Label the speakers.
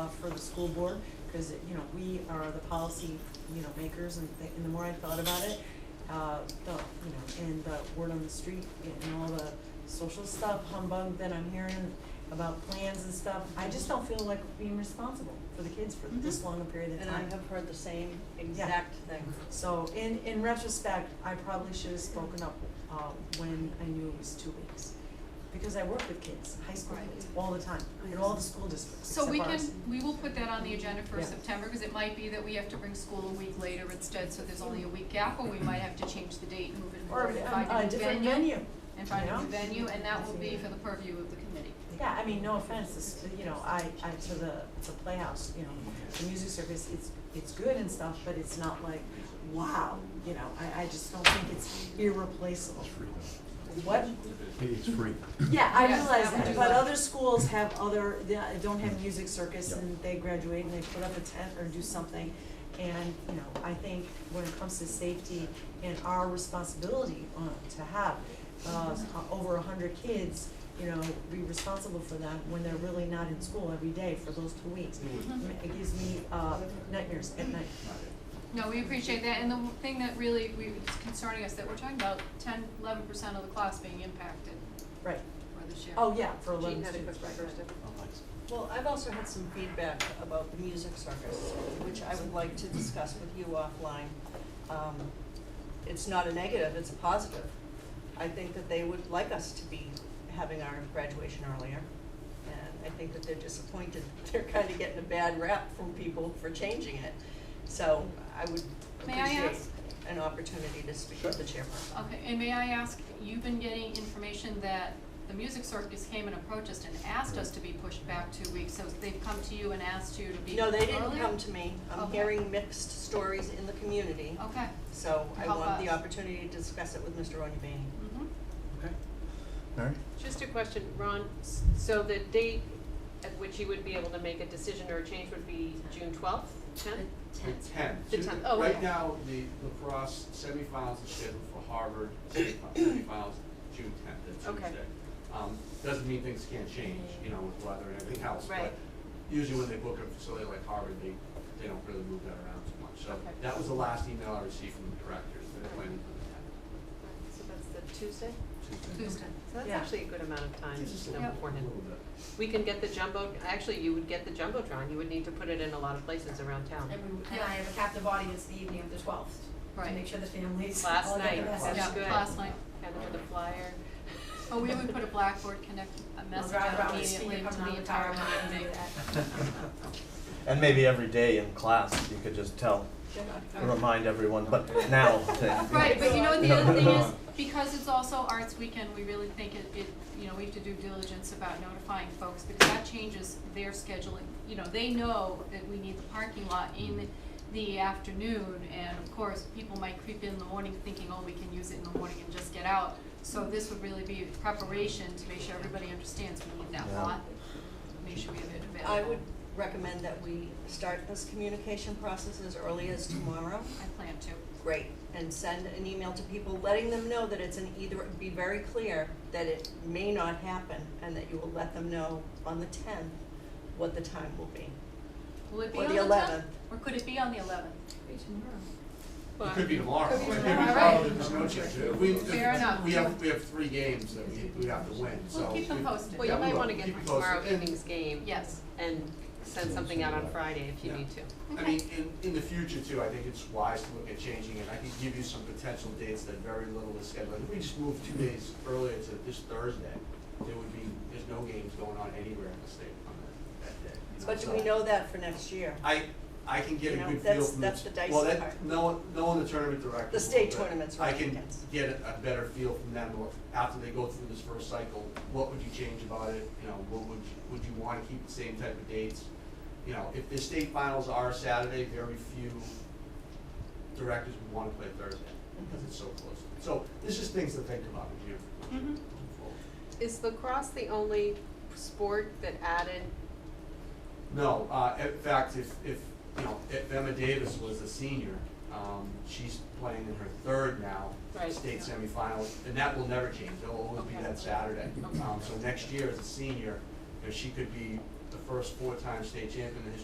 Speaker 1: uh, for the school board, because, you know, we are the policy, you know, makers, and the, and the more I thought about it, uh, the, you know, and the word on the street and all the social stuff humbug that I'm hearing about plans and stuff, I just don't feel like being responsible for the kids for this
Speaker 2: Mhm.
Speaker 1: long a period of
Speaker 2: And I
Speaker 1: time.
Speaker 2: have heard the same exact thing.
Speaker 1: So in, in retrospect, I probably should have spoken up, uh, when I knew it was two weeks. Because I work with kids, high school
Speaker 3: Right.
Speaker 1: kids, all the time, in all the school districts,
Speaker 3: So
Speaker 1: except
Speaker 3: we can,
Speaker 1: ours.
Speaker 3: we will put that on the agenda for
Speaker 1: Yeah.
Speaker 3: September, because it might be that we have to bring school a week later instead, so there's only a week gap, or we might have to change the date, move it
Speaker 1: Mm-hmm. Or
Speaker 3: forward, and find
Speaker 1: a,
Speaker 3: a
Speaker 1: a
Speaker 3: new
Speaker 1: different
Speaker 3: venue.
Speaker 1: venue,
Speaker 3: And find a new
Speaker 1: Yeah.
Speaker 3: venue, and that will be for the purview of the committee.
Speaker 1: yeah, I mean, no offense, it's, you know, I, I, to the, the Playhouse, you know, the music service, it's, it's good and stuff, but it's not like, wow, you know, I, I just don't think it's irreplaceable. What,
Speaker 4: It's free.
Speaker 1: Yeah, I
Speaker 3: Yes,
Speaker 1: realize
Speaker 3: that would
Speaker 1: that,
Speaker 3: do
Speaker 1: but
Speaker 3: well.
Speaker 1: other schools have other, they don't have music circus
Speaker 4: Yeah.
Speaker 1: and they graduate and they put up a tent or do something. And, you know, I think when it comes to safety and our responsibility uh, to have uh, over a hundred kids, you know, be responsible for them when they're really not in school every day for those two weeks. It gives me uh, nightmares at night.
Speaker 3: No, we appreciate that, and the w- thing that really, we, it's concerning us, that we're talking about ten, eleven percent of the class being impacted
Speaker 1: Right.
Speaker 3: for this year.
Speaker 1: Oh, yeah, for eleven
Speaker 5: Jean had a
Speaker 1: students.
Speaker 5: quick record.
Speaker 2: Well, I've also had some feedback about the music circus, which I would like to discuss with you offline. Um, it's not a negative, it's a positive. I think that they would like us to be having our graduation earlier. And I think that they're disappointed, they're kind of getting a bad rap from people for changing it. So I would
Speaker 3: May I
Speaker 2: appreciate
Speaker 3: ask?
Speaker 2: an opportunity to speak with the chairperson.
Speaker 3: Okay, and may I ask, you've been getting information that the music circus came and approached us and asked us to be pushed back two weeks, so they've come to you and asked you to be
Speaker 2: No, they didn't
Speaker 3: earlier?
Speaker 2: come to me. I'm
Speaker 3: Okay.
Speaker 2: hearing mixed stories in the community.
Speaker 3: Okay.
Speaker 2: So I
Speaker 3: Help
Speaker 2: want the
Speaker 3: us.
Speaker 2: opportunity to discuss it with Mr. Onyebane.
Speaker 3: Mhm.
Speaker 4: Mary?
Speaker 5: Just a question, Ron, S- so the date at which you would be able to make a decision or a change would be June twelfth, tenth?
Speaker 6: The tenth.
Speaker 5: The
Speaker 6: Ju-
Speaker 5: 10th. Oh,
Speaker 6: Right
Speaker 5: okay.
Speaker 6: now, the lacrosse semifinals are scheduled for Harvard, semi- semifinals, June tenth, that's
Speaker 5: Okay.
Speaker 6: Tuesday. Um, doesn't mean things can't change, you know, with weather and everything else, but
Speaker 5: Right.
Speaker 6: usually when they book a facility like Harvard, they, they don't really move that around too much. So
Speaker 5: Okay.
Speaker 6: that was the last email I received from the directors, they're planning for
Speaker 5: So that's the Tuesday?
Speaker 6: the tenth, Tuesday.
Speaker 3: Tuesday.
Speaker 5: So that's
Speaker 1: Yeah.
Speaker 5: actually a good amount of time
Speaker 6: Gives us a
Speaker 5: you know,
Speaker 6: little-
Speaker 5: beforehand.
Speaker 6: little bit.
Speaker 5: We can get the jumbo, actually, you would get the jumbotron, you would need to put it in a lot of places around town.
Speaker 7: And we, and I have a captive audience the evening of the twelfth, to
Speaker 3: Right.
Speaker 7: make sure the families
Speaker 5: Last
Speaker 7: all get the
Speaker 5: night,
Speaker 7: message.
Speaker 6: That's
Speaker 3: Yeah,
Speaker 5: good.
Speaker 3: last night.
Speaker 5: Kind of for the flyer.
Speaker 3: Oh, we would put a blackboard connect, a message
Speaker 7: drive
Speaker 3: out
Speaker 7: around with
Speaker 3: immediately
Speaker 7: speaker
Speaker 3: to
Speaker 7: coming
Speaker 3: the
Speaker 7: out the
Speaker 3: entire
Speaker 7: tower and
Speaker 3: community.
Speaker 7: do that.
Speaker 8: And maybe every day in class, you could just tell, remind everyone, but now to.
Speaker 3: Right, but you know what the other thing is, because it's also Arts Weekend, we really think it, it, you know, we have to do diligence about notifying folks, because that changes their scheduling. You know, they know that we need the parking lot in the afternoon, and of course, people might creep in in the morning thinking, oh, we can use it in the morning and just get out. So this would really be preparation to make sure everybody understands we need that
Speaker 8: Yeah.
Speaker 3: lot, make sure we have it available.
Speaker 2: I would recommend that we start this communication process as early as tomorrow.
Speaker 3: I plan to,
Speaker 2: Great. And send an email to people, letting them know that it's an either, be very clear that it may not happen and that you will let them know on the tenth what the time will be.
Speaker 3: will it be
Speaker 2: Or
Speaker 3: on
Speaker 2: the
Speaker 3: the
Speaker 2: 11th.
Speaker 3: tenth, or could it be on the eleventh?
Speaker 6: It could be tomorrow.
Speaker 7: Could be
Speaker 6: It
Speaker 7: tomorrow.
Speaker 6: probably- There's no change. If we- if
Speaker 3: Fair enough.
Speaker 6: We have, we have three games that we, we have to win, so.
Speaker 3: We'll keep them
Speaker 6: we-
Speaker 3: posted.
Speaker 5: Well, you
Speaker 6: Yeah, we
Speaker 5: might
Speaker 6: will.
Speaker 5: wanna
Speaker 6: Keep
Speaker 5: get
Speaker 6: it
Speaker 5: tomorrow
Speaker 6: posted. And-
Speaker 5: evening's game
Speaker 3: Yes,
Speaker 5: and send something out on Friday if you
Speaker 6: Yeah.
Speaker 5: need to.
Speaker 6: I mean, in, in the future too, I think it's wise to look at changing it. I can give you some potential dates that very little is scheduled. If we just move two days earlier to this Thursday, there would be, there's no games going on anywhere in the state on that, that day. you
Speaker 2: But do we
Speaker 6: so-
Speaker 2: know that for next year?
Speaker 6: I, I can get a
Speaker 2: You know,
Speaker 6: good feel
Speaker 2: that's-
Speaker 6: from
Speaker 2: that's
Speaker 6: this.
Speaker 2: the dicey
Speaker 6: Well, that,
Speaker 2: part.
Speaker 6: no, no, the tournament director.
Speaker 2: The state tournaments are
Speaker 6: I
Speaker 2: on
Speaker 6: can
Speaker 2: weekends.
Speaker 6: get a, a better feel from them, or after they go through this first cycle, what would you change about it, you know, what would, you- would you wanna keep the same type of dates? You know, if the state finals are Saturday, very few directors would wanna play Thursday, because it's so close. So, this is things to think about in here.
Speaker 2: Mm-hmm.
Speaker 3: Mhm.
Speaker 5: Is lacrosse the only sport that added
Speaker 6: No, uh, in fact, if, if, you know, if Emma Davis was a senior, um, she's playing in her third now,
Speaker 5: Right.
Speaker 6: state semifinal, and that will never change, it'll always be
Speaker 5: Okay.
Speaker 6: that Saturday. Um, so next year as a senior, if she could be the first four-time state champion in the history